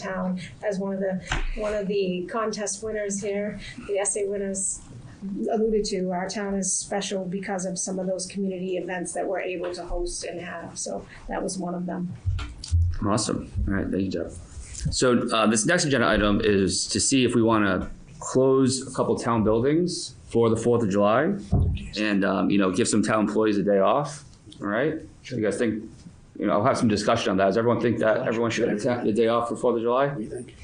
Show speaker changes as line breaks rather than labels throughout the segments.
town as one of the, one of the contest winners here, the essay winners alluded to, our town is special because of some of those community events that we're able to host and have, so that was one of them.
Awesome. All right, thank you, Deb. So uh, this next agenda item is to see if we want to close a couple town buildings for the Fourth of July, and um, you know, give some town employees a day off. All right, you guys think? You know, I'll have some discussion on that. Does everyone think that everyone should get a ta- a day off for Fourth of July?
What do you think?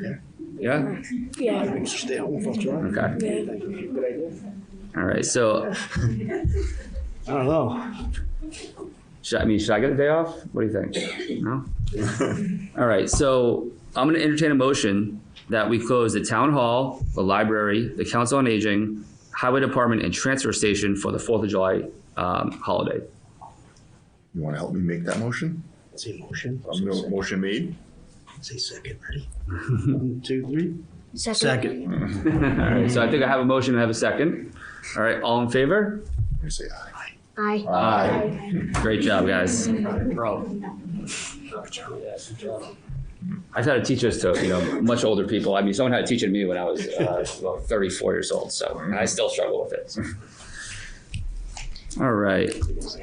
Yeah.
I
Yeah.
think you should stay home for July.
Okay.
What do you think? Good idea?
All right. So,
I don't know.
should I I mean, should I get a day off? What do you think? No. All right. So I'm going to entertain a motion that we close the town hall, the library, the council on aging, highway department, and transfer station for the Fourth of July um, holiday.
You want to help me make that motion?
Say motion.
I'm gonna, motion made.
Say second, ready? One, two, three. Second.
All right. So I think I have a motion and I have a second. All right. All in favor?
I say aye.
Aye.
Aye.
Great job, guys.
Bro.
I've had to teach this to you know much older people. I mean, someone had to teach it to me when I was uh, about 34 years old, so and I still struggle with it. All right,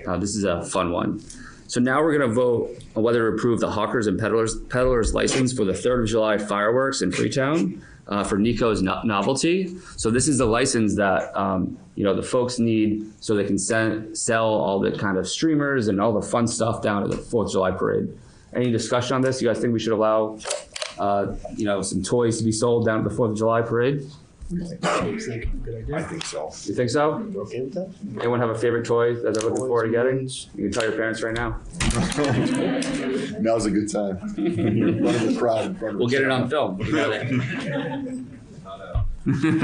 uh, this is a fun one. So now we're gonna vote on whether to approve the hawkers and peddlers peddlers license for the 3rd of July fireworks in Freetown uh, for Nico's no- novelty. So this is the license that um, you know the folks need so they can send, sell all the kind of streamers and all the fun stuff down at the 4th of July parade. Any discussion on this? You guys think we should allow, uh, you know, some toys to be sold down at the Fourth of July parade?
Second, good
I
idea.
think so.
You think so?
You okay with that?
Anyone have a favorite toy that they're looking forward to getting? You can tell your parents right now.
Now's a good time. In front of the crowd, in front of
We'll
the
get it
crowd.
on film. You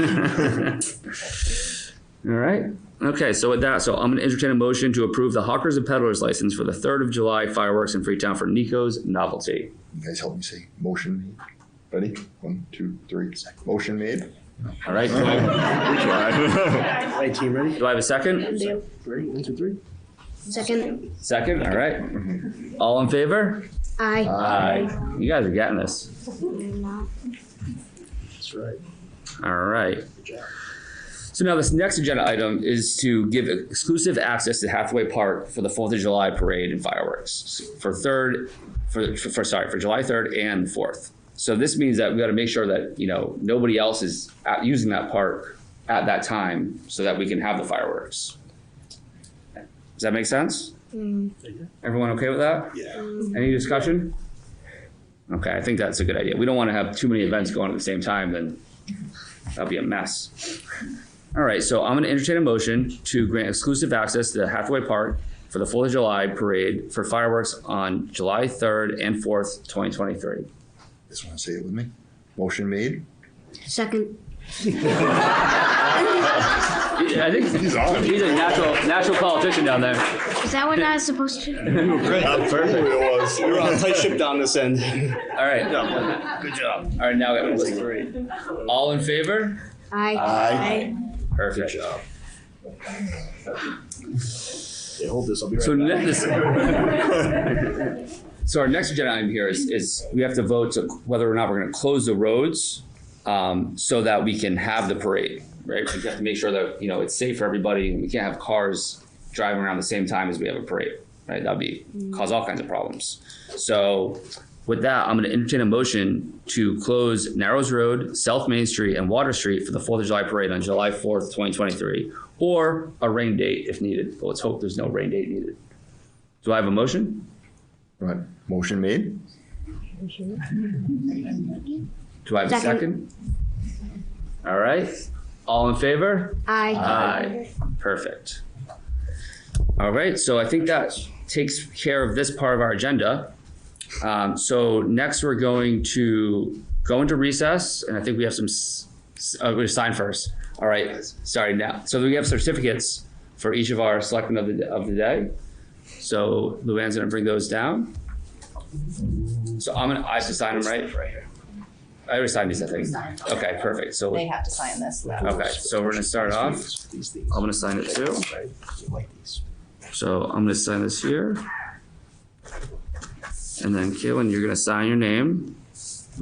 got it. All right. Okay, so with that, so I'm gonna entertain a motion to approve the hawkers and peddlers license for the Third of July fireworks in Freetown for Nico's novelty.
You guys help me say motion made. Ready? One, two, three. Motion made.
All right, do I-
Right, team, ready?
do I have a second?
Ready, one, two, three?
Second.
Second, all right. All in favor?
Aye.
Aye. You guys are getting this.
That's right.
All right.
Good job.
So now this next agenda item is to give exclusive access to Hathaway Park for the Fourth of July parade and fireworks for third, for, for sorry, for July third and fourth. So this means that we got to make sure that you know nobody else is out using that park at that time, so that we can have the fireworks. Does that make sense? Everyone okay with that?
Yeah.
Any discussion? Okay, I think that's a good idea. We don't want to have too many events going at the same time, then that'll be a mess. All right, so I'm going to entertain a motion to grant exclusive access to Hathaway Park for the Fourth of July parade for fireworks on July third and fourth, twenty twenty-three.
Just want to say it with me. Motion made.
Second.
I think he's
on.
a natural, natural politician down there.
Is that what I was supposed to?
Perfect. It was.
We're on a tight ship down this end.
All right,
Good job.
all right, now we have a
That's
list.
great.
All in favor?
Aye.
Aye.
Perfect.
Hey, hold this, I'll be
So
right
ne-
back.
this, so our next agenda item here is, is we have to vote to whether or not we're gonna close the roads, um, so that we can have the parade, right? We have to make sure that, you know, it's safe for everybody, and we can't have cars driving around the same time as we have a parade, right? That'd be, cause all kinds of problems. So with that, I'm gonna entertain a motion to close Narrows Road, South Main Street, and Water Street for the Fourth of July Parade on July fourth, twenty twenty-three, or a rain date if needed, but let's hope there's no rain date needed. Do I have a motion?
Right. Motion made.
Do I have a
Second.
second? All right, all in favor?
Aye.
Aye. Perfect. All right, so I think that takes care of this part of our agenda. Um, so next we're going to go into recess and I think we have some, s- s- uh, we sign first. All right, sorry now. So we have certificates for each of our selectmen of the, of the day. So Luann's gonna bring those down. So I'm gonna, I have to sign them, right? Right here. I already signed these, I think. Okay, perfect. So,
They have to sign this though.
okay, so we're gonna start off.
These things.
I'm gonna sign it too.
Right, you like these.
So I'm gonna sign this here. And then Kaylin, you're gonna sign your name.